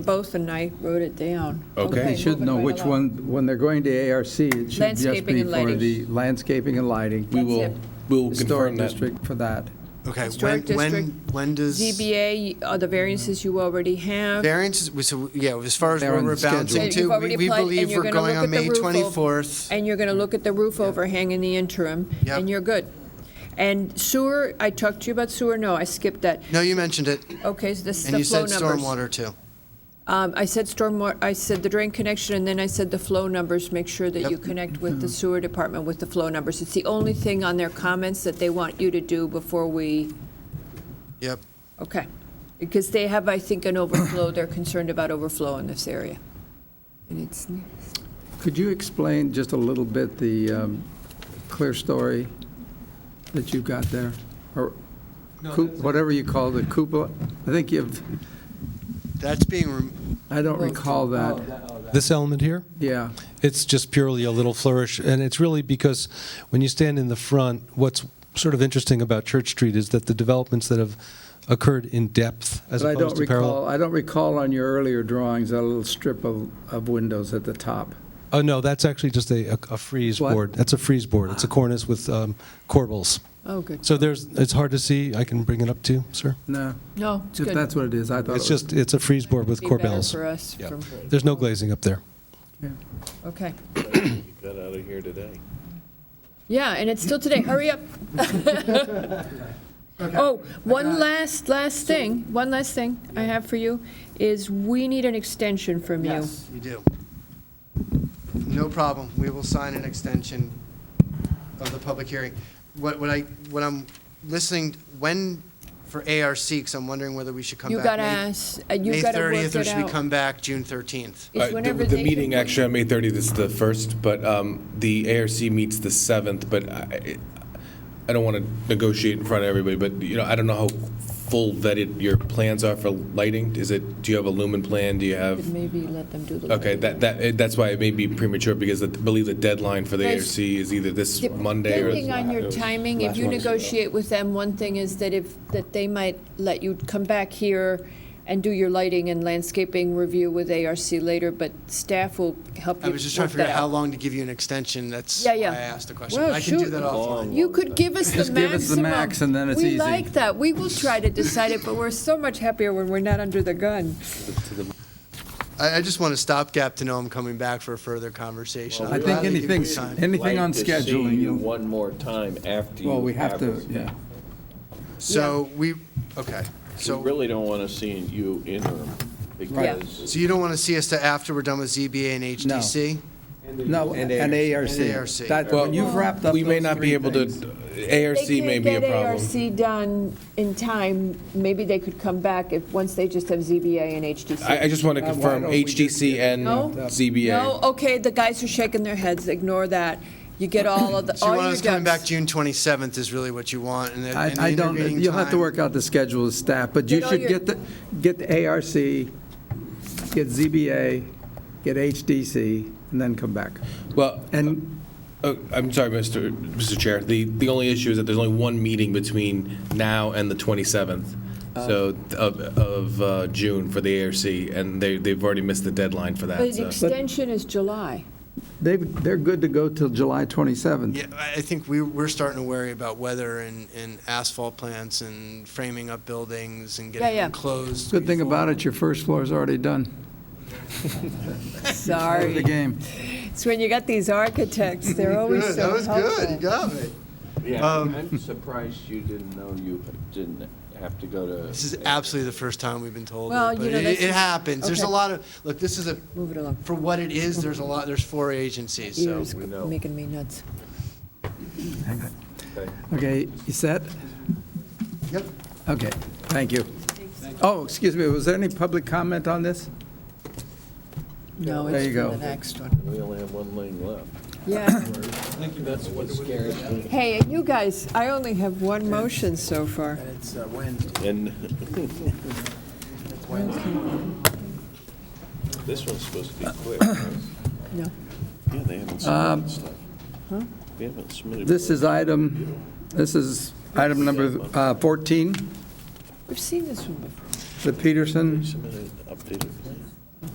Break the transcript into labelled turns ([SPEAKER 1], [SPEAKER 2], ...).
[SPEAKER 1] both, and I wrote it down.
[SPEAKER 2] Okay.
[SPEAKER 3] You should
[SPEAKER 1] moving
[SPEAKER 3] know
[SPEAKER 1] right
[SPEAKER 3] which
[SPEAKER 1] along.
[SPEAKER 3] one, when they're going to ARC, it should just
[SPEAKER 1] Landscaping
[SPEAKER 3] be
[SPEAKER 1] and
[SPEAKER 3] for
[SPEAKER 1] lighting.
[SPEAKER 3] the landscaping and lighting.
[SPEAKER 2] We will,
[SPEAKER 1] it.
[SPEAKER 2] we'll
[SPEAKER 3] Historic
[SPEAKER 2] confirm that.
[SPEAKER 3] district for that.
[SPEAKER 4] Okay, when,
[SPEAKER 1] Historic
[SPEAKER 4] when,
[SPEAKER 1] district,
[SPEAKER 4] when does?
[SPEAKER 1] ZBA, are uh, the variances you already have.
[SPEAKER 4] Variance, is- so, yeah, as far as
[SPEAKER 3] They're
[SPEAKER 4] where
[SPEAKER 3] on
[SPEAKER 4] we're
[SPEAKER 3] schedule.
[SPEAKER 4] bouncing
[SPEAKER 1] You've
[SPEAKER 4] to,
[SPEAKER 1] already
[SPEAKER 4] we we
[SPEAKER 1] applied, and
[SPEAKER 4] believe
[SPEAKER 1] you're
[SPEAKER 4] we're
[SPEAKER 1] gonna
[SPEAKER 4] going
[SPEAKER 1] look
[SPEAKER 4] on
[SPEAKER 1] at the
[SPEAKER 4] May
[SPEAKER 1] roof over-
[SPEAKER 4] 24th.
[SPEAKER 1] And you're going to look at the roof overhang in the interim,
[SPEAKER 4] Yep.
[SPEAKER 1] and you're good. And sewer, I talked to you about sewer, no, I skipped that.
[SPEAKER 4] No, you mentioned it,
[SPEAKER 1] Okay, so this is
[SPEAKER 4] and
[SPEAKER 1] the
[SPEAKER 4] you
[SPEAKER 1] flow
[SPEAKER 4] said
[SPEAKER 1] numbers.
[SPEAKER 4] stormwater too.
[SPEAKER 1] Um, I said stormwater, I said the drain connection, and then I said the flow numbers, make sure that you connect with
[SPEAKER 3] Mm-hmm.
[SPEAKER 1] the sewer department with the flow numbers. It's the only thing on their comments that they want you to do before we,
[SPEAKER 4] Yep,
[SPEAKER 1] okay. Because they have, I think, an overflow, they're concerned about overflow in this area. And it's,
[SPEAKER 3] Could you explain just a little bit the um, clear story that you've got there? Or coup- whatever you call the cupola? I think you've,
[SPEAKER 4] that's being, rem-
[SPEAKER 3] I don't
[SPEAKER 1] Well,
[SPEAKER 3] recall that.
[SPEAKER 5] This element here,
[SPEAKER 3] Yeah,
[SPEAKER 5] it's just purely a little flourish, and it's really because when you stand in the front, what's sort of interesting about Church Street is that the developments that have occurred in depth as
[SPEAKER 3] but I
[SPEAKER 5] opposed
[SPEAKER 3] don't
[SPEAKER 5] to parallel.
[SPEAKER 3] recall, I don't recall on your earlier drawings, that little strip of, of windows at the top.
[SPEAKER 5] Oh, no, that's actually just a, a- a freeze
[SPEAKER 3] What?
[SPEAKER 5] board. That's a freeze board. It's a cornice with um, corbels.
[SPEAKER 1] oh, good.
[SPEAKER 5] So there's, it's hard to see. I can bring it up to you, sir.
[SPEAKER 3] No,
[SPEAKER 1] No, it's
[SPEAKER 3] if
[SPEAKER 1] good.
[SPEAKER 3] that's what it is, I thought it
[SPEAKER 5] It's
[SPEAKER 3] was.
[SPEAKER 5] just, it's a freeze board with
[SPEAKER 1] Be better
[SPEAKER 5] corbels.
[SPEAKER 1] for us
[SPEAKER 5] Yeah.
[SPEAKER 1] from-
[SPEAKER 5] There's no glazing up there.
[SPEAKER 1] Okay.
[SPEAKER 6] Got out of here today.
[SPEAKER 1] Yeah, and it's still today. Hurry up. Oh, one last, last thing, one last thing I have for you is we need an extension from you.
[SPEAKER 4] yes, you do. No problem, we will sign an extension of the public hearing. What, what I, what I'm listening, when, for ARC, because I'm wondering whether we should come back.
[SPEAKER 1] You gotta
[SPEAKER 4] May-
[SPEAKER 1] ask, uh, you gotta
[SPEAKER 4] May
[SPEAKER 1] work
[SPEAKER 4] 30th, or
[SPEAKER 1] it
[SPEAKER 4] should we
[SPEAKER 1] out.
[SPEAKER 4] come back June 13th?
[SPEAKER 1] It's
[SPEAKER 6] Uh, the-
[SPEAKER 1] whenever they
[SPEAKER 6] The
[SPEAKER 1] can
[SPEAKER 6] meeting,
[SPEAKER 1] do it.
[SPEAKER 6] actually, on May 30th is the first, but um, the ARC meets the 7th, but I, I don't want to negotiate in front of everybody, but, you know, I don't know how full vetted your plans are for lighting. Is it, do you have a lumen plan? Do you have,
[SPEAKER 1] Maybe let them do the.
[SPEAKER 6] okay, that, that, eh, that's why it may be premature, because I believe the deadline for the
[SPEAKER 1] Guys,
[SPEAKER 6] ARC is either this Monday or.
[SPEAKER 1] Depending on your timing, if you negotiate with them, one thing is that if, that they might let you come back here and do your lighting and landscaping review with ARC later, but staff will help you
[SPEAKER 4] I was just trying
[SPEAKER 1] work
[SPEAKER 4] to figure out
[SPEAKER 1] that
[SPEAKER 4] how long to give you an extension, that's why
[SPEAKER 1] Yeah,
[SPEAKER 4] I
[SPEAKER 1] yeah.
[SPEAKER 4] asked the question.
[SPEAKER 1] Well,
[SPEAKER 4] I can do
[SPEAKER 1] shoot.
[SPEAKER 4] that offline.
[SPEAKER 1] You could give us the maximum.
[SPEAKER 3] Just give us the max and then it's
[SPEAKER 1] We
[SPEAKER 3] easy.
[SPEAKER 1] like that. We will try to decide it, but we're so much happier when we're not under the gun.
[SPEAKER 4] I, I just want a stopgap to know I'm coming back for a further conversation.
[SPEAKER 3] I think anything, anything on scheduling, you'll-
[SPEAKER 7] one more time after you.
[SPEAKER 3] well, we have to, yeah.
[SPEAKER 4] So we, okay,
[SPEAKER 7] We
[SPEAKER 4] so,
[SPEAKER 7] really don't want to see you interim
[SPEAKER 1] Yeah.
[SPEAKER 7] because.
[SPEAKER 4] so you don't want to see us to after we're done with ZBA and HDC?
[SPEAKER 3] No, an ARC.
[SPEAKER 4] And ARC.
[SPEAKER 3] That,
[SPEAKER 6] Well,
[SPEAKER 3] when you've wrapped up
[SPEAKER 6] We may
[SPEAKER 3] those
[SPEAKER 6] not
[SPEAKER 3] three
[SPEAKER 6] be able to,
[SPEAKER 3] things-
[SPEAKER 6] ARC may be
[SPEAKER 1] They
[SPEAKER 6] a problem.
[SPEAKER 1] can't get ARC done in time. Maybe they could come back if, once they just have ZBA and HDC.
[SPEAKER 6] I, I just want to
[SPEAKER 3] Uh, why
[SPEAKER 6] confirm
[SPEAKER 3] don't we just
[SPEAKER 6] HDC and
[SPEAKER 1] No?
[SPEAKER 6] ZBA.
[SPEAKER 1] No, okay, the guys are shaking their heads. Ignore that. You get all of the,
[SPEAKER 4] So
[SPEAKER 1] all
[SPEAKER 4] you
[SPEAKER 1] your
[SPEAKER 4] want us
[SPEAKER 1] ducks.
[SPEAKER 4] coming back June 27th is really what you want, and then and the
[SPEAKER 3] I, I don't,
[SPEAKER 4] intervening
[SPEAKER 3] you'll have to
[SPEAKER 4] time-
[SPEAKER 3] work out the schedule as staff, but you
[SPEAKER 1] Get all
[SPEAKER 3] should
[SPEAKER 1] your-
[SPEAKER 3] get the, get the ARC, get ZBA, get HDC, and then come back.
[SPEAKER 6] Well,
[SPEAKER 3] And,
[SPEAKER 6] uh, I'm sorry, Mr. Mr. Chair. The the only issue is that there's only one meeting between now and the 27th, so of, of uh, June for the ARC, and they they've already missed the deadline for
[SPEAKER 1] But
[SPEAKER 6] that.
[SPEAKER 1] an
[SPEAKER 6] So.
[SPEAKER 1] extension is July.
[SPEAKER 3] they've, they're good to go till July 27th.
[SPEAKER 4] Yeah, I I think we, we're starting to worry about weather and, and asphalt plants and framing up buildings and getting
[SPEAKER 1] yeah.
[SPEAKER 4] them closed.
[SPEAKER 3] Good thing
[SPEAKER 4] before-
[SPEAKER 3] about it, your first floor is already done. Out of The
[SPEAKER 1] Sorry.
[SPEAKER 3] game.
[SPEAKER 1] It's when you got these architects, they're always
[SPEAKER 4] Good,
[SPEAKER 1] so
[SPEAKER 4] that was
[SPEAKER 1] helpful.
[SPEAKER 4] good, you got me.
[SPEAKER 7] Yeah,
[SPEAKER 4] Um,
[SPEAKER 7] I'm surprised you didn't know you didn't have to go to.
[SPEAKER 4] This is absolutely the first time we've been told. it,
[SPEAKER 1] Well, you
[SPEAKER 4] but
[SPEAKER 1] know,
[SPEAKER 4] it-
[SPEAKER 1] that's-
[SPEAKER 4] It happens. There's a
[SPEAKER 1] okay.
[SPEAKER 4] lot of, look, this is a,
[SPEAKER 1] Move it along.
[SPEAKER 4] for what it is, there's a lot, there's four agencies, so.
[SPEAKER 1] Ears
[SPEAKER 7] we know.
[SPEAKER 1] making me nuts.
[SPEAKER 3] Okay, you set?
[SPEAKER 4] Yep.
[SPEAKER 3] Okay, thank you. Oh, excuse me, was there any public comment on this?
[SPEAKER 1] No,
[SPEAKER 3] There
[SPEAKER 1] it's
[SPEAKER 3] you
[SPEAKER 1] for the
[SPEAKER 3] go.
[SPEAKER 1] next one.
[SPEAKER 7] We only have one lane left.
[SPEAKER 1] Yeah.
[SPEAKER 7] I think that's what scares me.
[SPEAKER 1] Hey, and you guys, I only have one motion so far.
[SPEAKER 4] It's Wednesday.
[SPEAKER 7] And this one's supposed to be quick.
[SPEAKER 4] Uh,
[SPEAKER 7] right?
[SPEAKER 1] No.
[SPEAKER 7] Yeah, they haven't submitted stuff. We haven't submitted.
[SPEAKER 3] This is item, this is item number uh, 14.
[SPEAKER 1] We've seen this one before.
[SPEAKER 8] the Peterson,
[SPEAKER 3] Submitted updated plan.